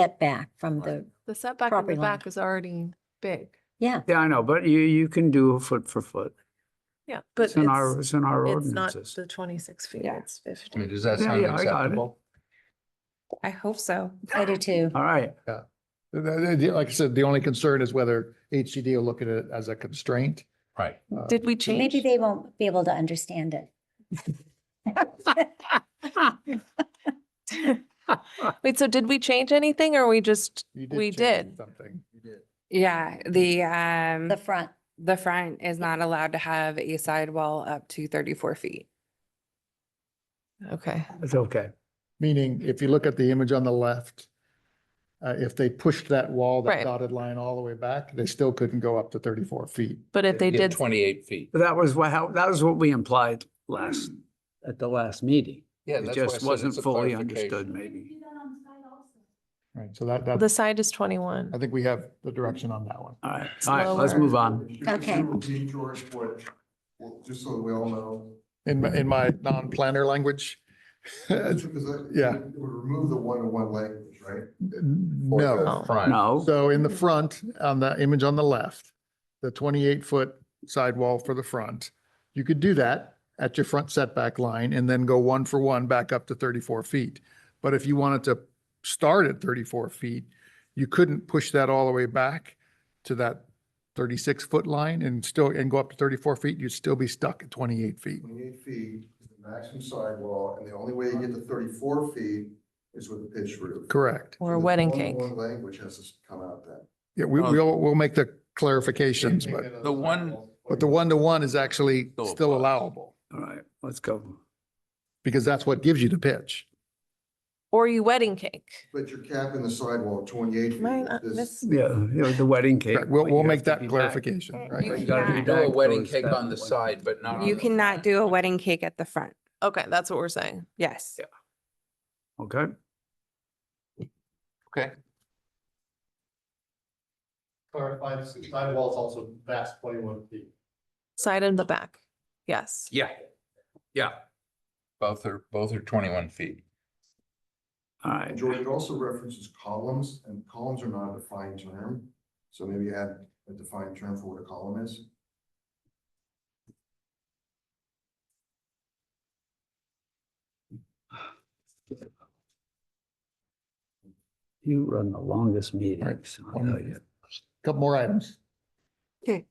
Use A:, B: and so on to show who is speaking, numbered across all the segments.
A: setback from the,
B: The setback on the
A: Property line.
B: back is already big.
A: yeah,
C: Yeah, I know, but you, you can do foot for foot.
B: Yeah, but
C: It's
B: it's,
C: in our, it's in our
B: it's not
C: ordinances.
B: the twenty-six feet,
D: Yeah.
B: it's
E: I mean,
B: fifty.
E: does that
C: Yeah,
E: sound
C: yeah, I got it.
E: acceptable?
D: I hope so.
A: I do too.
C: All right,
F: The- the- the- Like I said, the only concern is whether HCD will look at it as a constraint.
E: Right.
F: Uh,
B: Did we change?
A: Maybe they won't be able to understand it.
B: Wait, so did we change anything or we just,
F: you
B: we
F: change
B: did.
F: Something.
D: Yeah, the, um,
A: The front,
D: the front is not allowed to have a sidewall up to thirty-four feet.
B: okay.
C: it's okay.
F: Meaning, if you look at the image on the left, uh, if they pushed that wall,
B: Right.
F: that dotted line all the way back, they still couldn't go up to thirty-four feet.
B: But if they
E: Yeah,
B: did,
E: Twenty-eight feet.
C: But That was what, how, that was what we implied last, at the last meeting.
E: Yeah.
C: It
E: that's why I
C: just
E: said
C: wasn't
E: it's a
C: fully
E: clarification.
C: understood, maybe.
F: Right, so that,
B: the
F: that,
B: side is twenty-one.
F: I think we have the direction on that one.
C: All right, all right, let's
B: Slower.
C: move on.
A: Okay.
G: Repeat George what, well, just so we all know.
F: In, my- in my non-planner language.
G: Because I-
F: Yeah.
G: It would remove the one-to-one language, right?
E: Or the
B: Oh.
F: No.
E: front.
C: No,
F: So in the front, on the image on the left, the twenty-eight foot sidewall for the front, you could do that at your front setback line and then go one for one back up to thirty-four feet. But if you wanted to start at thirty-four feet, you couldn't push that all the way back to that thirty-six foot line and still, and go up to thirty-four feet, you'd still be stuck at twenty-eight feet.
G: Twenty-eight feet is the maximum sidewall, and the only way you get to thirty-four feet is with a pitched roof.
F: Correct.
B: Or
G: So
B: a
G: the
B: wedding cake.
G: one-to-one Language has to come out then.
F: Yeah, we,
E: Oh.
F: we'll, we'll make the clarifications, but,
E: The one-
F: but the one-to-one is actually
E: Still
F: still
E: applies.
F: allowable
C: all right, let's go.
F: because that's what gives you the pitch.
B: Or you wedding cake.
G: But you're capping the sidewall at twenty-eight feet.
B: Mine, uh,
G: This-
B: this-
C: Yeah, you know, the wedding cake.
F: Correct. We'll,
C: but
F: we'll
C: you
F: make
C: have to
F: that
C: be back.
F: clarification,
D: You
F: right?
E: You gotta
D: cannot-
E: do a
C: Back
E: wedding
C: goes
E: cake
C: that
E: on the
C: one.
E: side, but not on
D: You
E: the-
D: cannot do a wedding cake at the front.
B: Okay, that's what we're saying.
D: Yes.
C: Yeah. Okay,
E: Okay.
H: clarify, the sidewall is also vast twenty-one feet.
B: Side and the back. Yes.
E: Yeah. Yeah. Both are, both are twenty-one feet.
C: all
G: And
C: right.
G: George, it also references columns, and columns are not a defined term, so maybe add a defined term for what a column is.
C: You run the longest meetings. I'll
F: One-
C: tell you.
F: Couple more items.
B: Side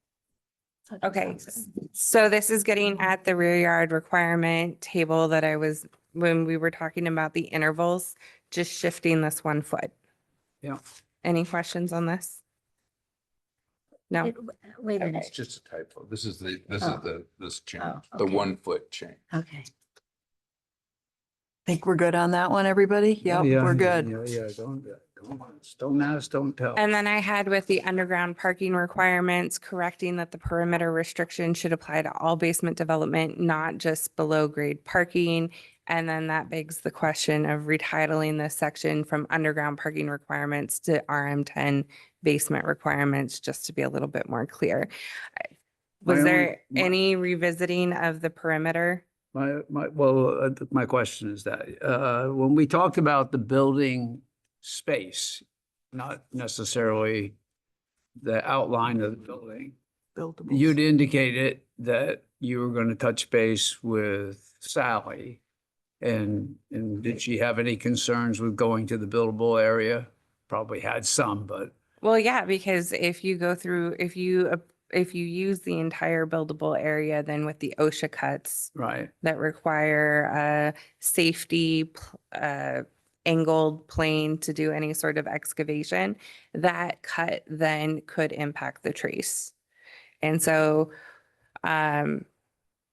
B: and
D: Okay,
B: back.
D: s- so this is getting at the rear yard requirement table that I was, when we were talking about the intervals, just shifting this one foot.
C: Yeah.
D: Any questions on this? No?
A: It- Wait a
E: It's
A: minute,
E: just a typo. This is the, this is
A: Oh.
E: the, this change,
A: Oh,
E: the
A: okay.
E: one foot change.
A: okay.
I: Think we're good on that one, everybody? Yep, we're good.
C: Yeah, yeah, don't, don't, don't ask, don't tell.
D: And then I had with the underground parking requirements, correcting that the perimeter restriction should apply to all basement development, not just below grade parking. And then that begs the question of retitling this section from underground parking requirements to RM ten basement requirements, just to be a little bit more clear. I-
C: My
D: Was
C: only-
D: there
C: my-
D: any revisiting of the perimeter?
C: My, my, well, uh, th- my question is that, uh, when we talked about the building space, not necessarily the outline of the building, you'd indicated that you were going to touch base with Sally. And, and did she have any concerns with going to the buildable area? Probably had some, but
D: Well, yeah, because if you go through, if you, ap- if you use the entire buildable area, then with the OSHA cuts
C: Right,
D: that require a safety pl- uh, angled plane to do any sort of excavation, that cut then could impact the trace. And so um,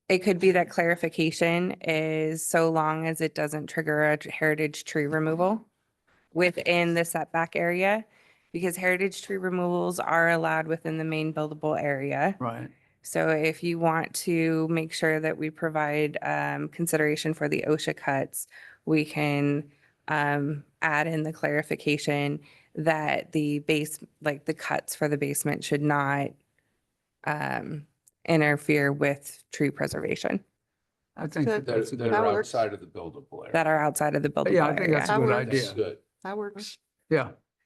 D: it could be that clarification is so long as it doesn't trigger a heritage tree removal within the setback area, because heritage tree removals are allowed within the main buildable area.
C: right.
D: So if you want to make sure that we provide um, consideration for the OSHA cuts, we can um, add in the clarification that the base, like the cuts for the basement should not um, interfere with tree preservation
C: I think
B: Good.
C: that
E: They're,
C: that's a good.
E: they're
B: That works.
E: outside of the buildable area.
D: that are outside of the buildable
C: Yeah, I think that's
D: area.
C: a good
B: That
C: idea.
E: Good.
B: That works.
C: Yeah.